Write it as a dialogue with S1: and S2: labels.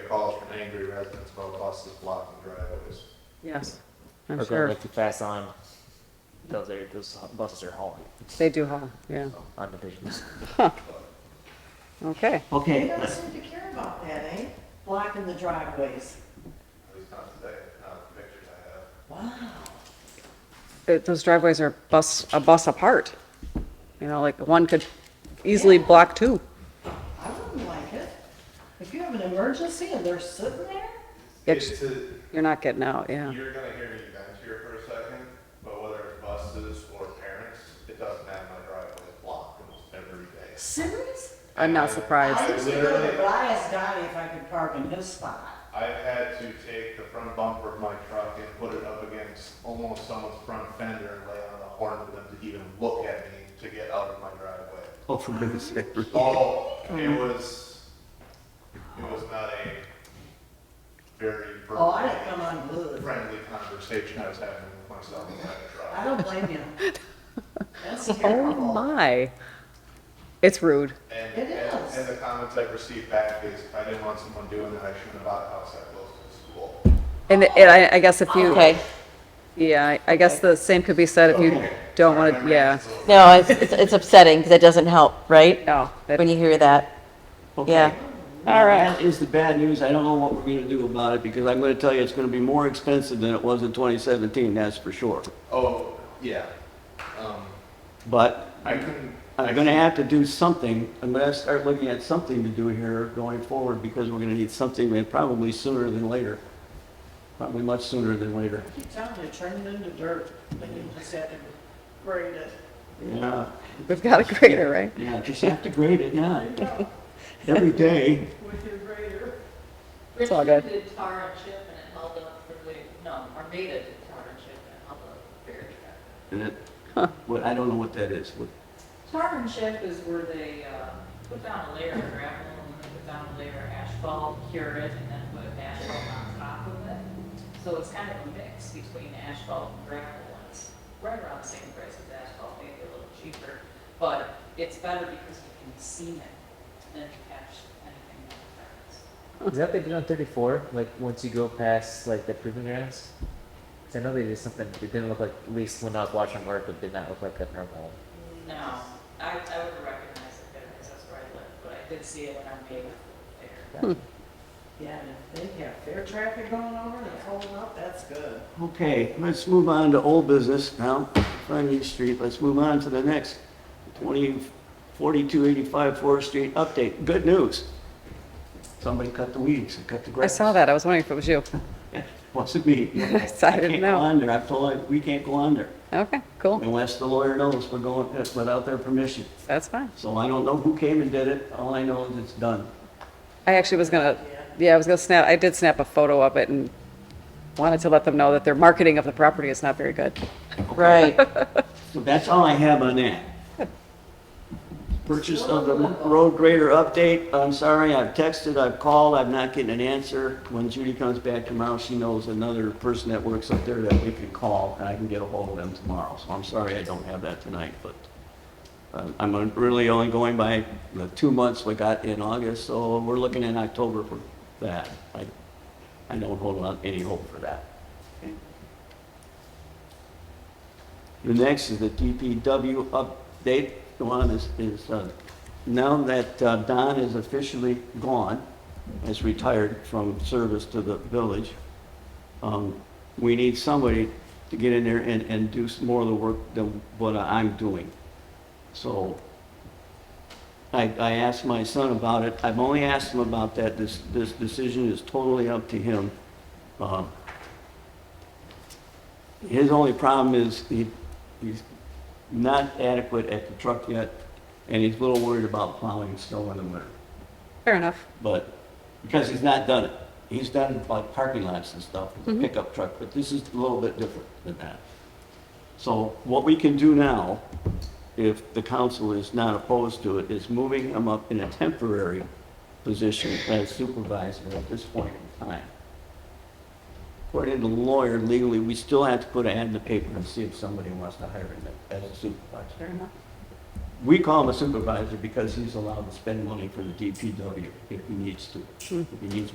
S1: angry residents about buses blocking driveways.
S2: Yes,
S3: Or
S2: I'm
S3: going
S2: sure.
S3: way too fast on, those are, those buses are hauling
S2: They do haul, yeah.
S3: on divisions.
S2: Okay,
S4: They
S3: Okay,
S4: don't seem to care about that, eh? Blocking the driveways.
S1: At least not today, not the pictures I have.
S4: Wow.
S2: It- those driveways are bus, a bus apart. You know, like one could easily block two.
S4: I wouldn't like it. If you have an emergency and they're sitting there,
S2: It's-
S1: It's a-
S2: You're not getting out, yeah.
S1: You're gonna hear me vent here for a second, but whether it's buses or parents, it doesn't matter, my driveway is blocked almost every day.
S4: serious?
S2: I'm not
S1: And
S2: surprised.
S4: I used to go to Elias Gotti if I could park in his spot.
S1: I've had to take the front bumper of my truck and put it up against almost someone's front fender and lay on the horn for them to even look at me to get out of my driveway.
S3: oh, for goodness sake.
S1: Oh, it was, it was not a very
S4: Oh, I didn't come on blue.
S1: friendly conversation I was having with myself in my
S4: I
S1: truck.
S4: don't blame you. That's
S2: Oh
S4: terrible.
S2: my. It's rude.
S1: And,
S4: It
S1: and,
S4: is.
S1: and the comments I received back is, I didn't want someone doing that, I shouldn't have bought a house that close to the school.
S2: And it- and I, I guess if you,
S5: Okay,
S2: yeah, I- I guess the same could be said if you
S1: Okay.
S2: don't want to, yeah.
S5: no, it's, it's it's upsetting because it doesn't help, right?
S2: No, Oh, that-
S5: When you hear that, yeah.
S2: all right.
S6: That is the bad news. I don't know what we're going to do about it because I'm going to tell you it's going to be more expensive than it was in 2017, that's for sure.
S1: Oh, yeah, um,
S6: But
S1: I couldn't. I
S6: I'm going to
S1: couldn't-
S6: have to do something. I'm going to start looking at something to do here going forward because we're going to need something and probably sooner than later. Probably much sooner than later.
S4: I keep telling you, turn it into dirt, then you just have to grade it.
S6: Yeah,
S2: We've got a grader, right?
S6: yeah, just have to grade it, yeah. Every day.
S4: With your grader.
S2: It's all good.
S7: Richard did tar and chip and it held up for the, no, Armada did tar and chip and it held up for the beer truck.
S6: And it- What, I don't know what that is. What-
S7: Tar and chip is where they, uh, put down a layer of gravel and then put down a layer of asphalt, cure it, and then put asphalt on top of it. So it's kind of a mix between asphalt and gravel, and it's right around the same price as asphalt, maybe a little cheaper. But it's better because you can seam it than catch anything that happens.
S3: Is that what they did on 34? Like, once you go past, like, the proving grounds? 'Cause I know they did something, it didn't look like, at least when I was watching work, it did not look like a normal.
S7: No, I, I would recognize it there because that's where I live, but I did see it when I made it there.
S4: Yeah, and if they have fair traffic going over and it's holding up, that's good.
S6: Okay, let's move on to old business now, Frontage Street, let's move on to the next, 20, 4285 Forest Street update, good news. Somebody cut the weeds, and cut the
S2: I
S6: grass.
S2: saw that. I was wondering if it was you.
S6: Wasn't me.
S2: Yes, I didn't
S6: can't
S2: know.
S6: go on there, I've told, her, we can't go on there,
S2: Okay, cool.
S6: unless the lawyer knows we're going, uh, without their permission.
S2: That's fine.
S6: So I don't know who came and did it, all I know is it's done.
S2: I actually was gonna, yeah, I was gonna snap, I did snap a photo of it and wanted to let them know that their marketing of the property is not very good.
S5: Right.
S6: So that's all I have on that. Purchase of the road grader update, I'm sorry, I've texted, I've called, I'm not getting an answer. When Judy comes back tomorrow, she knows another person that works up there that we can call, and I can get a hold of them tomorrow. So I'm sorry I don't have that tonight, but um, I'm really only going by the two months we got in August, so we're looking in October for that. I, I don't hold on any hope for that. The next is the DPW update. The one is, is, uh, now that uh, Don is officially gone, has retired from service to the village, um, we need somebody to get in there and, and do some more of the work than what I'm doing. So I, I asked my son about it. I've only asked him about that. This, this decision is totally up to him. Uh, his only problem is he, he's not adequate at the truck yet, and he's a little worried about plowing snow in the winter.
S2: Fair enough.
S6: But, because he's not done it. He's done like parking lots and stuff with a
S2: Mm-hmm.
S6: pickup truck, but this is a little bit different than that. So what we can do now, if the council is not opposed to it, is moving him up in a temporary position as supervisor at this point in time. According to the lawyer legally, we still have to put an ad in the paper and see if somebody wants to hire him as a supervisor.
S2: Fair enough.
S6: We call him a supervisor because he's allowed to spend money for the DPW if he needs to. If he needs